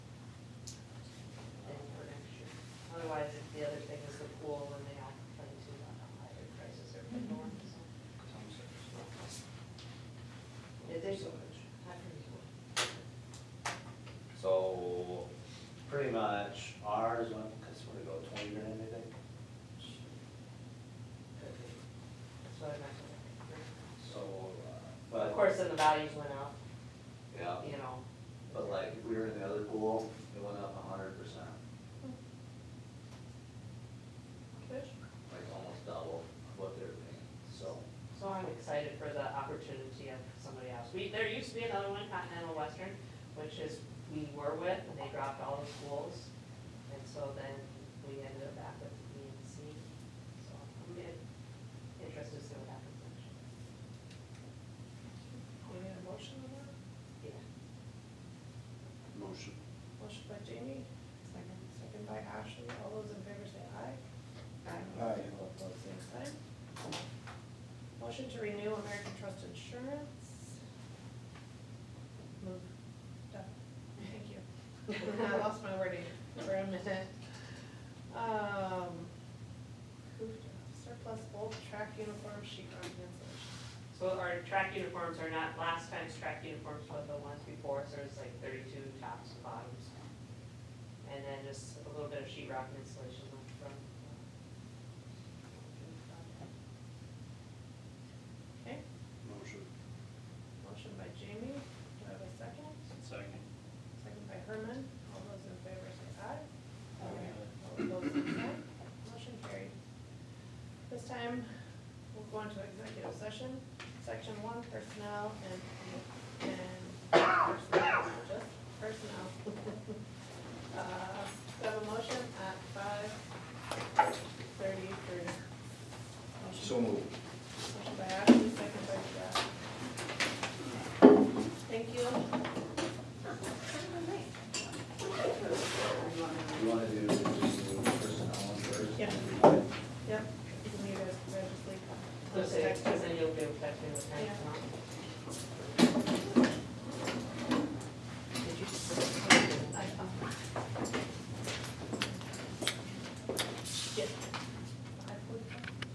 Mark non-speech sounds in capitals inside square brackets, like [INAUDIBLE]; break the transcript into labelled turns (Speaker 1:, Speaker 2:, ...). Speaker 1: the other thing is the pool, when they all complain too about how high their uh, prices are for dorms, so. Yeah, there's so much, I agree.
Speaker 2: So, pretty much ours went, cause we're gonna go twenty grand, I think.
Speaker 1: Could be. That's what I meant.
Speaker 2: So, uh,
Speaker 1: Of
Speaker 2: but,
Speaker 1: course, then the values went up,
Speaker 2: yeah,
Speaker 1: you know,
Speaker 2: but like, if we were in the other pool, it went up a hundred percent, like almost double what they were paying, so.
Speaker 1: so I'm excited for the opportunity of somebody else. We, there used to be another one, Continental Western, which is, we were with, and they dropped all the schools. And so then we ended up back with B and C, so I'm in- interested to see what happens next year.
Speaker 3: We need a motion on that?
Speaker 1: Yeah.
Speaker 2: Motion.
Speaker 3: Motion by Jamie, second, second by Ashley. All those in favor say aye.
Speaker 4: Aye.
Speaker 3: All opposed, same sign. Motion to renew American Trust Insurance. Move. Done. Thank you. [LAUGHS] I lost my wording for a minute. Um, approved surplus bulk track uniform sheet rock insulation.
Speaker 1: So our track uniforms are not last time's track uniforms, but the ones before, so it's like thirty-two tops and bottoms. And then just a little bit of sheet rock and insulation on the front. uh,
Speaker 3: Okay,
Speaker 2: Motion.
Speaker 3: motion by Jamie. Do I have a second? Second by Herman. All those in favor say aye. All opposed, same sign. Motion carried. This time, we'll go into executive session, section one, personnel and, and personnel, just personnel. Uh, so I have a motion at five thirty-three.
Speaker 4: So moved.
Speaker 3: Motion by Ashley, second by Jeff. Thank you.
Speaker 2: You wanna do, do personnel one first?
Speaker 3: Yeah.
Speaker 2: All right.